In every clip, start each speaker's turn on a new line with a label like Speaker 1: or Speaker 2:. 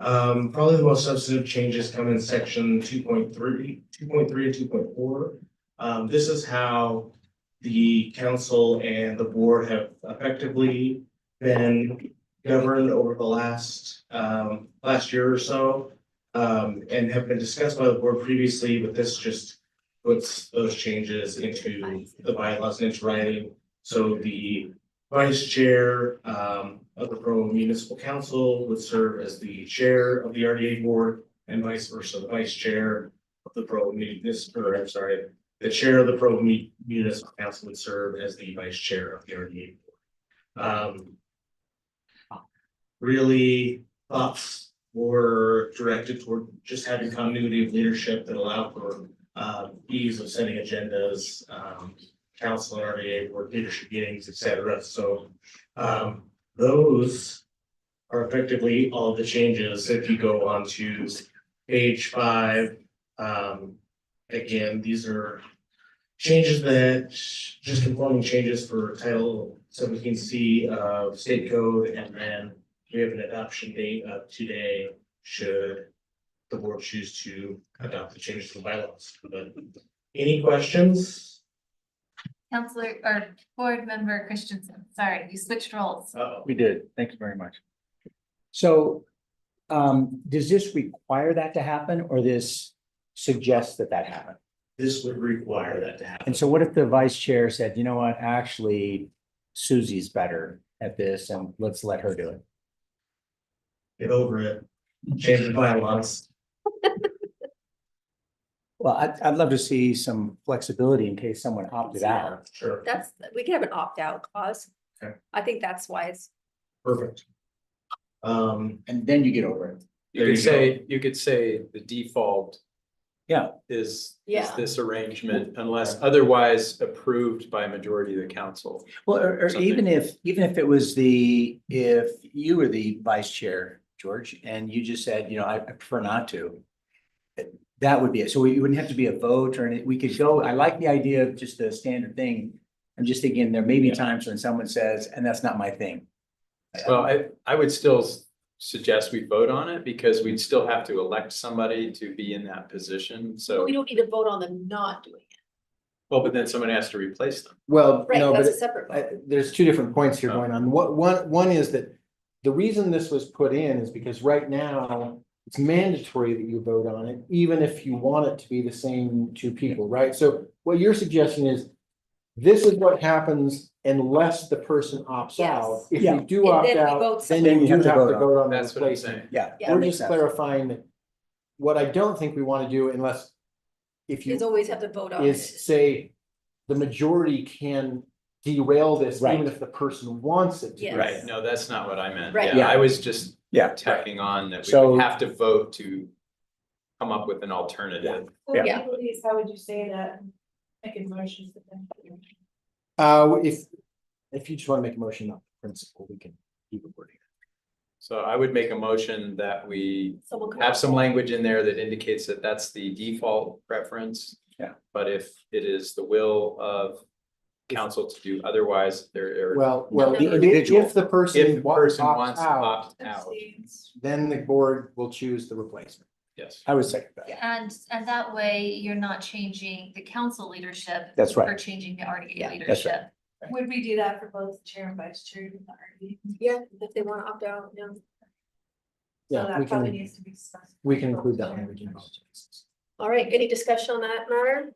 Speaker 1: Um, probably the most substantive changes come in section 2.3, 2.3, and two point four. Um, this is how the council and the board have effectively been governed over the last, um, last year or so. Um, and have been discussed by the board previously, but this just puts those changes into the bylaws and into writing. So the vice chair um, of the Provo Municipal Council would serve as the chair of the RDA board and vice versa, the vice chair of the Provo Municipal, or I'm sorry, the chair of the Provo Mu- Municipal Council would serve as the vice chair of the RDA board. Um, Really thoughts were directed toward just having continuity of leadership that allowed for uh, ease of setting agendas, um, council and RDA board leadership meetings, et cetera. So um, those are effectively all the changes. If you go on to page five, um, again, these are changes that, just conforming changes for title seventeen C of state code, and then we have an adoption date of today should the board choose to adopt the changes to the bylaws. But any questions?
Speaker 2: Counselor or Board Member Christensen, sorry, you switched roles.
Speaker 1: Uh-oh.
Speaker 3: We did. Thank you very much.
Speaker 4: So, um, does this require that to happen or this suggests that that happen?
Speaker 1: This would require that to happen.
Speaker 4: And so what if the vice chair said, you know what, actually Susie's better at this and let's let her do it?
Speaker 1: Get over it, change the bylaws.
Speaker 4: Well, I'd, I'd love to see some flexibility in case someone opted out.
Speaker 1: Sure,
Speaker 5: That's, we could have an opt-out clause.
Speaker 1: Okay.
Speaker 5: I think that's why it's,
Speaker 1: perfect. Um,
Speaker 4: And then you get over it.
Speaker 3: You
Speaker 1: There
Speaker 3: could
Speaker 1: you go.
Speaker 3: say, you could say the default.
Speaker 4: Yeah.
Speaker 3: Is, is
Speaker 5: Yeah.
Speaker 3: this arrangement unless otherwise approved by a majority of the council.
Speaker 4: Well, or, or
Speaker 3: Something.
Speaker 4: even if, even if it was the, if you were the vice chair, George, and you just said, you know, I I prefer not to. eh, That would be it. So we wouldn't have to be a vote or any, we could go, I like the idea of just the standard thing. I'm just thinking there may be times when someone says, and that's not my thing.
Speaker 3: Well, I, I would still s- suggest we vote on it because we'd still have to elect somebody to be in that position. So,
Speaker 5: we don't need to vote on them not doing it.
Speaker 3: well, but then someone has to replace them.
Speaker 6: Well,
Speaker 5: Right,
Speaker 6: no, but
Speaker 5: that's a
Speaker 6: it-
Speaker 5: separate
Speaker 6: I-
Speaker 5: vote.
Speaker 6: there's two different points here
Speaker 3: Oh.
Speaker 6: going on. What, one, one is that the reason this was put in is because right now it's mandatory that you vote on it, even if you want it to be the same two people, right? So what your suggestion is, this is what happens unless the person opts
Speaker 5: Yes.
Speaker 6: out. If
Speaker 4: Yeah.
Speaker 6: you do
Speaker 5: And
Speaker 6: opt
Speaker 5: then we
Speaker 6: out,
Speaker 5: vote
Speaker 6: then
Speaker 4: Then
Speaker 6: you
Speaker 4: we
Speaker 6: do have to vote on the
Speaker 3: That's what I'm
Speaker 6: replacement.
Speaker 3: saying.
Speaker 4: Yeah.
Speaker 5: Yeah.
Speaker 4: that
Speaker 6: We're
Speaker 4: makes
Speaker 6: just
Speaker 4: sense.
Speaker 6: clarifying that what I don't think we want to do unless if you
Speaker 5: Is always have to vote on it.
Speaker 6: is say the majority can derail this
Speaker 4: Right.
Speaker 6: even if the person wants it to.
Speaker 5: Yes.
Speaker 3: Right, no, that's not what I meant.
Speaker 5: Right.
Speaker 3: Yeah, I was just
Speaker 4: Yeah.
Speaker 3: tacking on that we
Speaker 4: So-
Speaker 3: would have to vote to come up with an alternative.
Speaker 7: Well,
Speaker 5: Yeah.
Speaker 7: Please, how would you say that? Make a motion. to them.
Speaker 6: Uh, if, if you just want to make a motion on principle, we can keep it wording.
Speaker 3: So I would make a motion that we
Speaker 5: Someone could
Speaker 3: have some language in there that indicates that that's the default preference.
Speaker 4: Yeah.
Speaker 3: But if it is the will of council to do otherwise, there are,
Speaker 6: Well, well,
Speaker 5: no,
Speaker 6: i-
Speaker 5: no.
Speaker 6: if the
Speaker 3: if the
Speaker 6: person wa-
Speaker 3: person
Speaker 6: opts
Speaker 3: wants to
Speaker 6: out,
Speaker 3: opt out,
Speaker 6: then the board will choose the replacement.
Speaker 3: yes.
Speaker 4: I would second that.
Speaker 2: And, and that way you're not changing the council leadership.
Speaker 4: That's
Speaker 2: Or
Speaker 4: right.
Speaker 2: changing the RDA
Speaker 5: Yeah,
Speaker 4: that's right.
Speaker 2: leadership.
Speaker 7: Would we do that for both chair and vice chair? in the RD?
Speaker 5: Yeah, if they want to opt out, no.
Speaker 7: So
Speaker 6: Yeah, we
Speaker 7: that probably
Speaker 6: can,
Speaker 7: needs to be discussed.
Speaker 6: we can include that language in both.
Speaker 5: All right, any discussion on that matter?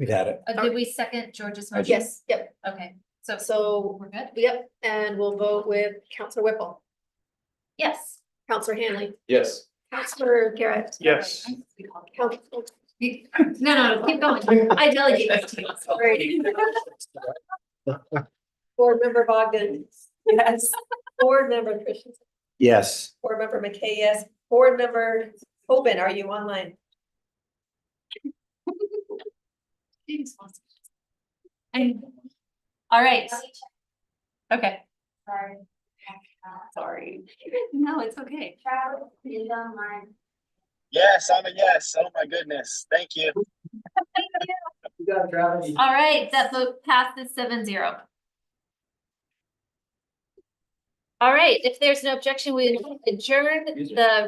Speaker 4: We've had it.
Speaker 2: Uh, did we second George's motion?
Speaker 5: Yes, yep,
Speaker 2: Okay, so, so
Speaker 5: so,
Speaker 2: we're good?
Speaker 5: yep, and we'll vote with Counselor Whipple,
Speaker 2: Yes.
Speaker 5: Counselor Hanley,
Speaker 3: Yes.
Speaker 5: Counselor Garrett.
Speaker 3: Yes.
Speaker 5: Coun-
Speaker 2: No, no, keep going. I delegate this to you.
Speaker 5: Sorry. Board Member Bogdan. Yes. Board Member Christensen.
Speaker 4: Yes.
Speaker 5: Board Member McKay, yes. Board Member Oben, are you online?
Speaker 2: And, all right. Okay.
Speaker 7: Sorry.
Speaker 2: Sorry. No, it's okay.
Speaker 7: Travel is online.
Speaker 8: Yes, I'm a yes. Oh my goodness. Thank you.
Speaker 2: All right, that vote passes seven zero. All right, if there's no objection, we adjourn the